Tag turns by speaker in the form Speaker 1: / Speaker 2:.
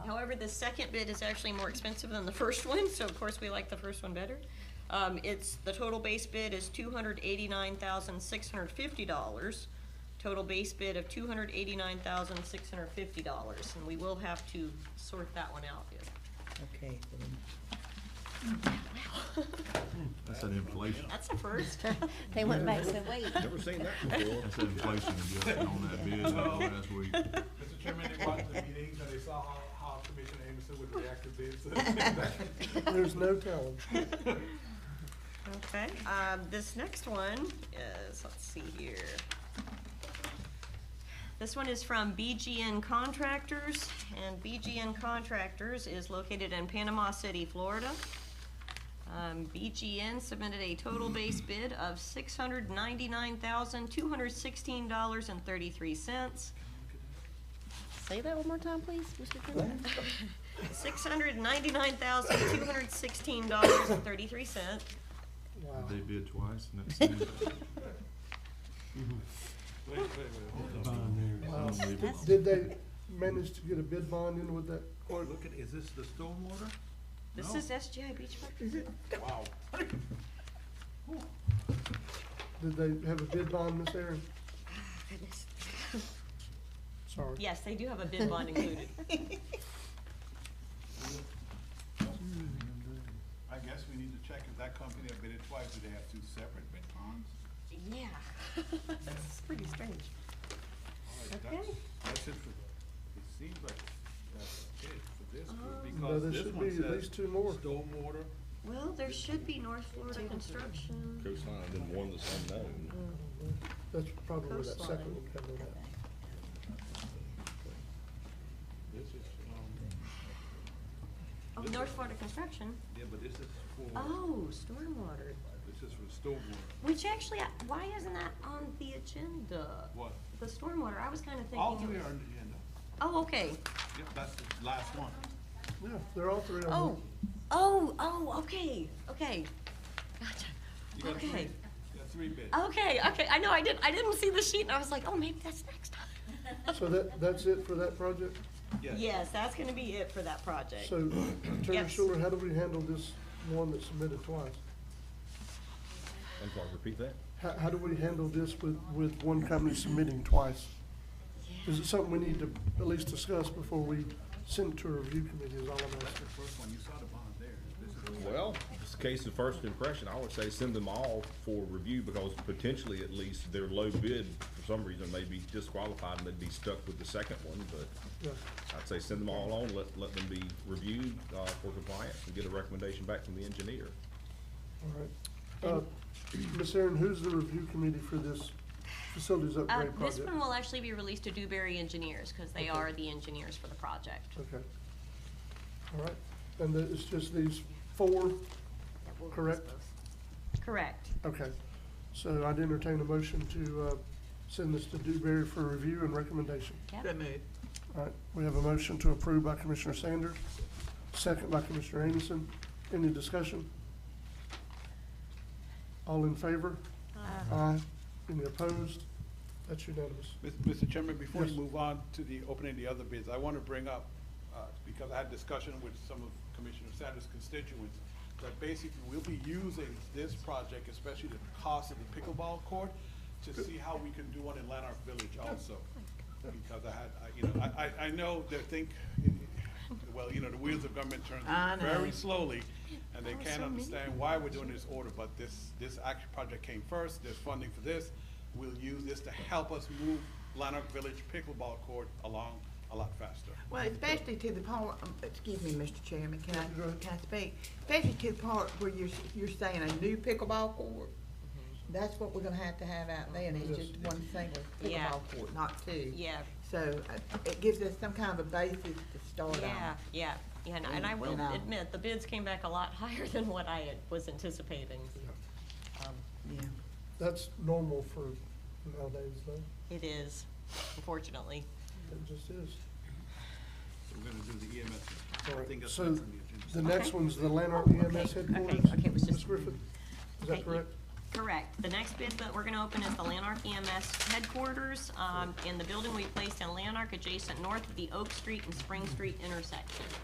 Speaker 1: However, the second bid is actually more expensive than the first one, so of course, we like the first one better. Um, it's, the total base bid is two hundred eighty-nine thousand, six hundred fifty dollars. Total base bid of two hundred eighty-nine thousand, six hundred fifty dollars, and we will have to sort that one out.
Speaker 2: Okay, then,
Speaker 3: That's an inflation,
Speaker 1: That's the first.
Speaker 4: They went back and said, wait,
Speaker 5: Never seen that before.
Speaker 3: that's an inflation adjustment on that bid uh, last week.
Speaker 6: Mr. Chairman, they watched the meetings and they saw how, how Commissioner Anderson would react to bids. Mr.
Speaker 5: There's no telling.
Speaker 1: Okay, um, this next one is, let's see here. This one is from BGN Contractors, and BGN Contractors is located in Panama City, Florida. Um, BGN submitted a total base bid of six hundred ninety-nine thousand, two hundred sixteen dollars and thirty-three cents.
Speaker 4: say that one more time, please, Mr. Chairman.
Speaker 1: Six hundred ninety-nine thousand, two hundred sixteen dollars and thirty-three cents.
Speaker 3: Did They bid twice and that's. it? Unbelievable.
Speaker 5: Did they manage to get a bid bond in with that?
Speaker 6: Or look at, is this the stormwater?
Speaker 1: This
Speaker 6: No.
Speaker 1: is SGI Beach Park.
Speaker 6: Wow.
Speaker 5: Did they have a bid bond, Miss Aaron?
Speaker 1: Goodness.
Speaker 5: Sorry.
Speaker 1: Yes, they do have a bid bond included.
Speaker 6: I guess we need to check if that company have bid it twice, do they have two separate bid bonds?
Speaker 1: Yeah. That's pretty strange.
Speaker 6: All right, that's-
Speaker 1: Okay.
Speaker 6: That's it for the, it seems like that's it for this
Speaker 1: Um,
Speaker 6: group,
Speaker 5: No,
Speaker 6: because
Speaker 5: there
Speaker 6: this
Speaker 5: should be
Speaker 6: one
Speaker 5: at
Speaker 6: says
Speaker 5: least two more.
Speaker 6: stormwater.
Speaker 1: Well, there should be North Florida Construction.
Speaker 7: coastline, and then one that's unknown.
Speaker 5: That's probably where that
Speaker 1: Coastline.
Speaker 5: second one came in at.
Speaker 6: This is, um,
Speaker 1: Oh, North Florida Construction.
Speaker 6: yeah, but this is for,
Speaker 1: Oh, stormwater.
Speaker 6: this is for stormwater.
Speaker 1: Which actually, I- why isn't that on the agenda?
Speaker 6: What?
Speaker 1: The stormwater, I was kind of thinking.
Speaker 6: All
Speaker 1: it
Speaker 6: three
Speaker 1: was-
Speaker 6: are on the agenda.
Speaker 1: Oh, okay.
Speaker 6: Yep, that's the last one.
Speaker 5: Yeah, they're all three of them.
Speaker 1: Oh, oh, oh, okay, okay. Gotcha.
Speaker 6: You got three,
Speaker 1: Okay,
Speaker 6: you got three bids.
Speaker 1: okay, okay. I know, I didn't, I didn't see the sheet and I was like, oh, maybe that's next time.
Speaker 5: So that, that's it for that project?
Speaker 1: Yes, that's gonna be it for that project.
Speaker 5: So, Attorney
Speaker 1: Yes.
Speaker 5: Schuler, how do we handle this one that's submitted twice?
Speaker 7: I'm sorry, repeat that?
Speaker 5: How, how do we handle this with, with one company submitting twice? Is it something we need to at least discuss before we send it to a review committee is all I'm asking?
Speaker 6: First one, you saw the bond there. This is
Speaker 7: Well, it's a case of first impression. I would say send them all for review because potentially at least their low bid for some reason may be disqualified and they'd be stuck with the second one, but
Speaker 5: Yeah.
Speaker 7: I'd say send them all on, let, let them be reviewed, uh, for compliance and get a recommendation back from the engineer.
Speaker 5: All right. Uh, Ms. Aaron, who's the review committee for this facilities
Speaker 1: Uh,
Speaker 5: upgrade
Speaker 1: this
Speaker 5: project?
Speaker 1: one will actually be released to Dewberry Engineers, because they are the engineers for the project.
Speaker 5: Okay. All right. And the- it's just these four, correct?
Speaker 1: Correct.
Speaker 5: Okay. So I'd entertain a motion to, uh, send this to Dewberry for review and recommendation.
Speaker 1: Yep.
Speaker 5: All right, we have a motion to approve by Commissioner Sanders, second by Commissioner Amison. Any discussion? All in favor? Aye. Any opposed? That's unanimous.
Speaker 8: Mis- Mr. Chairman, before we
Speaker 5: Yes.
Speaker 8: move on to the opening of the other bids, I want to bring up, uh, because I had discussion with some of Commissioner Sanders' constituents, that basically we'll be using this project, especially the cost of the pickleball court, to see how we can do one in Lanark Village also. Because I had, I- you know, I, I, I know they think, well, you know, the wheels of government turn
Speaker 2: I know.
Speaker 8: very slowly, and they
Speaker 1: Oh, so
Speaker 8: can't
Speaker 1: many
Speaker 8: understand why we're doing this order, but this, this action project came first, there's funding for this. We'll use this to help us move Lanark Village pickleball court along a lot faster.
Speaker 2: well, especially to the part, um, excuse me, Mr. Chairman, can I, can I speak? Especially to the part where you're, you're saying a new pickleball court. That's what we're gonna have to have out there, and it's just one single
Speaker 1: Yeah.
Speaker 2: pickleball court, not two.
Speaker 1: Yeah,
Speaker 2: So uh, it gives us some kind of a basis to start on.
Speaker 1: yeah, yeah, yeah, and- and I will
Speaker 2: And, uh,
Speaker 1: admit, the bids came back a lot higher than what I had- was anticipating.
Speaker 2: Yeah.
Speaker 5: That's normal for nowadays, though.
Speaker 1: It is, unfortunately.
Speaker 5: It just is.
Speaker 6: We're gonna do the E EMS.
Speaker 5: All
Speaker 6: I
Speaker 5: right,
Speaker 6: think that's
Speaker 5: so
Speaker 6: next on the agenda.
Speaker 5: The next
Speaker 1: Okay.
Speaker 5: one's the Lanark
Speaker 1: Okay,
Speaker 5: EMS
Speaker 1: okay,
Speaker 5: headquarters.
Speaker 1: okay, it was
Speaker 5: Ms.
Speaker 1: just-
Speaker 5: Griffin, is
Speaker 1: Okay,
Speaker 5: that correct?
Speaker 1: Correct. The next bid that we're gonna open is the Lanark EMS headquarters, um, in the building we placed in Lanark adjacent north of the Oak Street and Spring Street intersection.